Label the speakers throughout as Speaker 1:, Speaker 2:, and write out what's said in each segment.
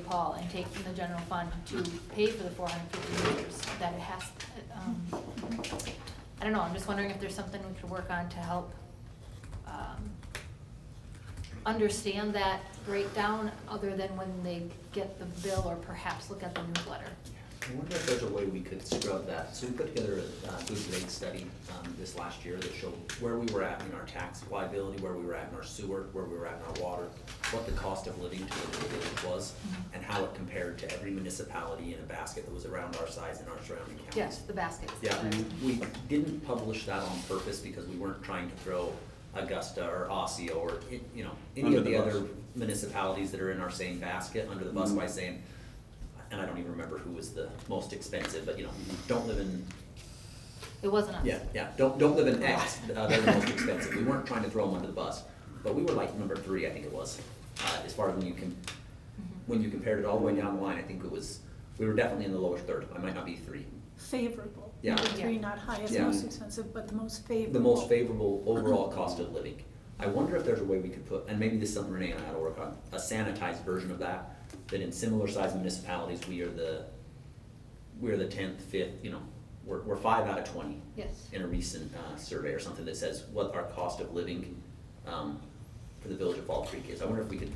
Speaker 1: Paul and take from the general fund to pay for the four hundred fifty meters, that it has, um, I don't know, I'm just wondering if there's something we could work on to help, um, understand that breakdown, other than when they get the bill, or perhaps look at the newsletter.
Speaker 2: I wonder if there's a way we could scrub that. So we put together a uh, food rate study um, this last year that showed where we were at in our tax liability, where we were at in our sewer, where we were at in our water, what the cost of living to the village was,
Speaker 1: Mm-hmm.
Speaker 2: and how it compared to every municipality in a basket that was around our size in our surrounding counties.
Speaker 1: Yes, the baskets.
Speaker 2: Yeah, we we didn't publish that on purpose because we weren't trying to throw Augusta or Osseo or, i- you know, any
Speaker 3: Under
Speaker 2: of
Speaker 3: the
Speaker 2: the
Speaker 3: bus. Mm-hmm.
Speaker 2: other municipalities that are in our same basket under the bus by saying, and I don't even remember who was the most expensive, but you know, don't live in,
Speaker 1: It wasn't us.
Speaker 2: yeah, yeah, don't, don't live in X, uh, they're the most expensive. We weren't trying to throw them under the bus, but we were like number three, I think it was, uh, as far as when you can,
Speaker 1: Mhm.
Speaker 2: when you compared it all the way down the line, I think it was, we were definitely in the lowest third. I might not be three,
Speaker 4: favorable.
Speaker 2: Yeah.
Speaker 4: Number three,
Speaker 1: Yeah.
Speaker 4: not highest,
Speaker 2: Yeah.
Speaker 4: most expensive, but the most favorable.
Speaker 2: the most favorable overall cost of living. I wonder if there's a way we could put, and maybe this is something Renee and I ought to work on, a sanitized version of that, that in similar sized municipalities, we are the, we're the tenth, fifth, you know, we're, we're five out of twenty.
Speaker 1: Yes.
Speaker 2: In a recent, uh, survey or something that says what our cost of living, um, for the village of Fall Creek is. I wonder if we could,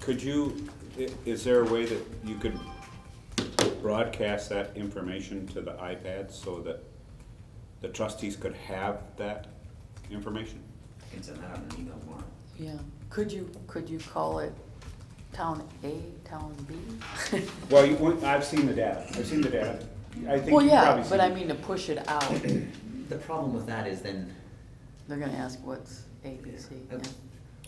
Speaker 3: Could you, i- is there a way that you could broadcast that information to the iPads so that the trustees could have that information?
Speaker 2: I can send that out in an email tomorrow.
Speaker 5: Yeah, could you, could you call it town A, town B?
Speaker 3: Well, you, won't- I've seen the data, I've seen the data. I think
Speaker 5: Well,
Speaker 3: you've
Speaker 5: yeah,
Speaker 3: probably seen
Speaker 5: but I
Speaker 3: it.
Speaker 5: mean to push it out,
Speaker 2: The problem with that is then. uh,
Speaker 5: they're gonna ask what's A, B, C, yeah.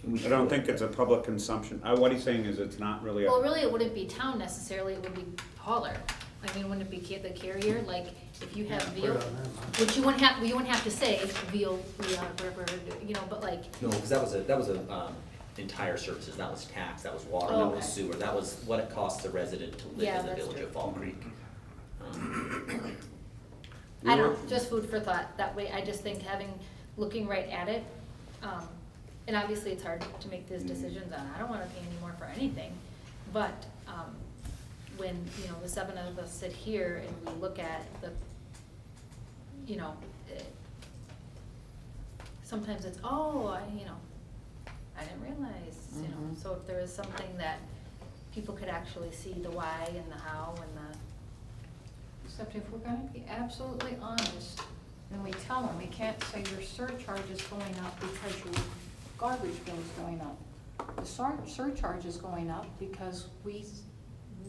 Speaker 2: we
Speaker 3: I don't think it's a public consumption. I, what he's saying is it's not really
Speaker 1: Well,
Speaker 3: a,
Speaker 1: really, it wouldn't be town necessarily, it would be hauler. I mean, wouldn't it be ca- the carrier, like, if you have
Speaker 6: Yeah, put it
Speaker 1: veal,
Speaker 6: on them, huh?
Speaker 1: which you wouldn't have, you wouldn't have to say veal, yeah, whatever, you know, but like,
Speaker 2: No, because that was a, that was a, um, entire services, that was tax, that was water, that was
Speaker 1: Oh, Okay.
Speaker 2: sewer, that was what it costs a resident to live
Speaker 1: Yeah,
Speaker 2: in the
Speaker 1: that's
Speaker 2: village
Speaker 1: true.
Speaker 2: of Fall Creek. Um,
Speaker 1: I
Speaker 3: We were-
Speaker 1: don't, know, just food for thought, that way, I just think having, looking right at it, um, and obviously it's hard to make these decisions on, I don't wanna pay anymore for anything, but, um, when, you know, the seven of us sit here and we look at the, you know, eh, sometimes it's, oh, I, you know, I didn't realize, you know,
Speaker 5: Mhm.
Speaker 1: so if there is something that people could actually see the why and the how and the,
Speaker 7: Except if we're gonna be absolutely honest, then we tell them, we can't say your surcharge is going up because your garbage bill is going up. The sur- surcharge is going up because we,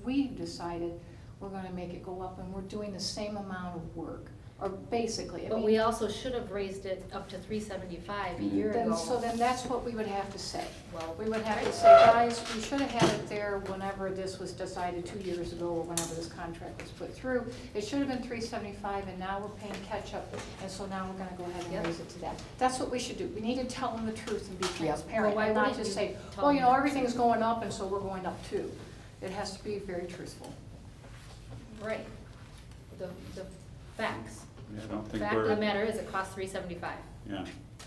Speaker 7: we've decided we're gonna make it go up and we're doing the same amount of work, or basically, I
Speaker 1: But
Speaker 7: mean.
Speaker 1: we also should have raised it up to three seventy-five a year
Speaker 7: Then,
Speaker 1: ago.
Speaker 7: so then that's what we would have to say.
Speaker 1: Well-
Speaker 7: We would have to say, guys, we should have had it there whenever this was decided two years ago, or whenever this contract was put through. It should have been three seventy-five, and now we're paying catch-up, and so now we're gonna go ahead
Speaker 1: Yep.
Speaker 7: and raise it to that. That's what we should do. We need to tell them the truth and be
Speaker 1: Well,
Speaker 7: transparent,
Speaker 1: why
Speaker 7: and not
Speaker 1: wouldn't
Speaker 7: just
Speaker 1: you
Speaker 7: say,
Speaker 1: tell
Speaker 7: well, you
Speaker 1: them
Speaker 7: know,
Speaker 1: the
Speaker 7: everything's
Speaker 1: truth?
Speaker 7: going up, and so we're going up too. It has to be very truthful.
Speaker 1: Right, the, the facts.
Speaker 3: I don't think
Speaker 1: Fact of
Speaker 3: we're,
Speaker 1: the matter is it costs three seventy-five
Speaker 3: yeah,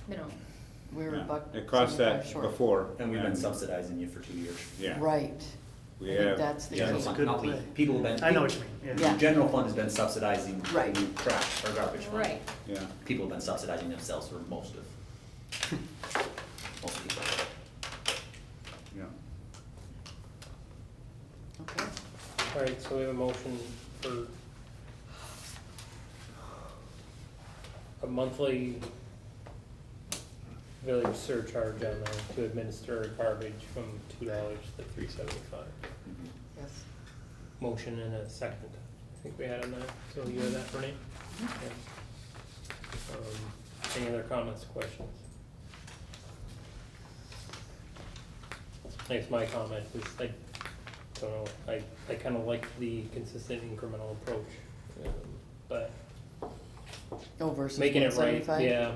Speaker 1: minimum.
Speaker 5: We were a
Speaker 3: yeah.
Speaker 5: buck.
Speaker 3: It cost that
Speaker 5: 75 short.
Speaker 3: before.
Speaker 2: And we've been subsidizing you for two years.
Speaker 3: Yeah.
Speaker 5: Right,
Speaker 3: We
Speaker 5: I think
Speaker 3: have-
Speaker 5: that's the
Speaker 2: Yeah,
Speaker 5: key.
Speaker 2: it's
Speaker 6: That's
Speaker 2: not-
Speaker 6: good
Speaker 2: not we-
Speaker 6: play.
Speaker 2: People have been.
Speaker 6: I know what you mean,
Speaker 2: the
Speaker 5: Yeah.
Speaker 6: yeah.
Speaker 2: General fund has been subsidizing
Speaker 5: Right.
Speaker 2: trash or garbage. fund.
Speaker 1: Right.
Speaker 3: Yeah.
Speaker 2: People have been subsidizing themselves for most of, most of people.
Speaker 3: Yeah.
Speaker 5: okay.
Speaker 8: All right, so we have a motion for a monthly village surcharge on there to administer garbage from two dollars to three seventy-five.
Speaker 2: Mm-hmm.
Speaker 5: Yes.
Speaker 8: Motion and a second, I think we had on that, so you have that, Renee? Okay.
Speaker 5: Mm-hmm.
Speaker 8: Um, Any other comments, questions? I guess my comment was, I don't know, I, I kinda like the consistent incremental approach, um, but
Speaker 5: Oh, versus one
Speaker 8: making it right,
Speaker 5: seventy-five?
Speaker 8: yeah,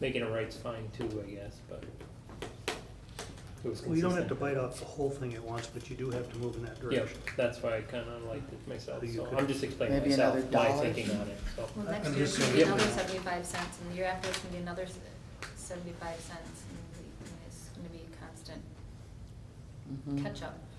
Speaker 8: making it right's fine too, I guess, but it was consistent.
Speaker 6: We don't have to bite off the whole thing at once, but you do have to move in that
Speaker 8: Yeah,
Speaker 6: direction.
Speaker 8: that's why I kinda liked it myself,
Speaker 6: So you
Speaker 8: so
Speaker 6: could-
Speaker 8: I'm just explaining
Speaker 5: Maybe
Speaker 8: myself,
Speaker 5: another
Speaker 8: my
Speaker 5: dollar.
Speaker 8: thinking on it, so.
Speaker 1: Well,
Speaker 6: I-
Speaker 1: next
Speaker 6: I'm
Speaker 1: year it's
Speaker 6: just
Speaker 1: gonna be
Speaker 8: saying-
Speaker 1: another seventy-five cents, and the year after it's gonna be another s- seventy-five cents, and the- and it's gonna be constant
Speaker 5: Mhm.
Speaker 7: Hmm.
Speaker 1: catch-up.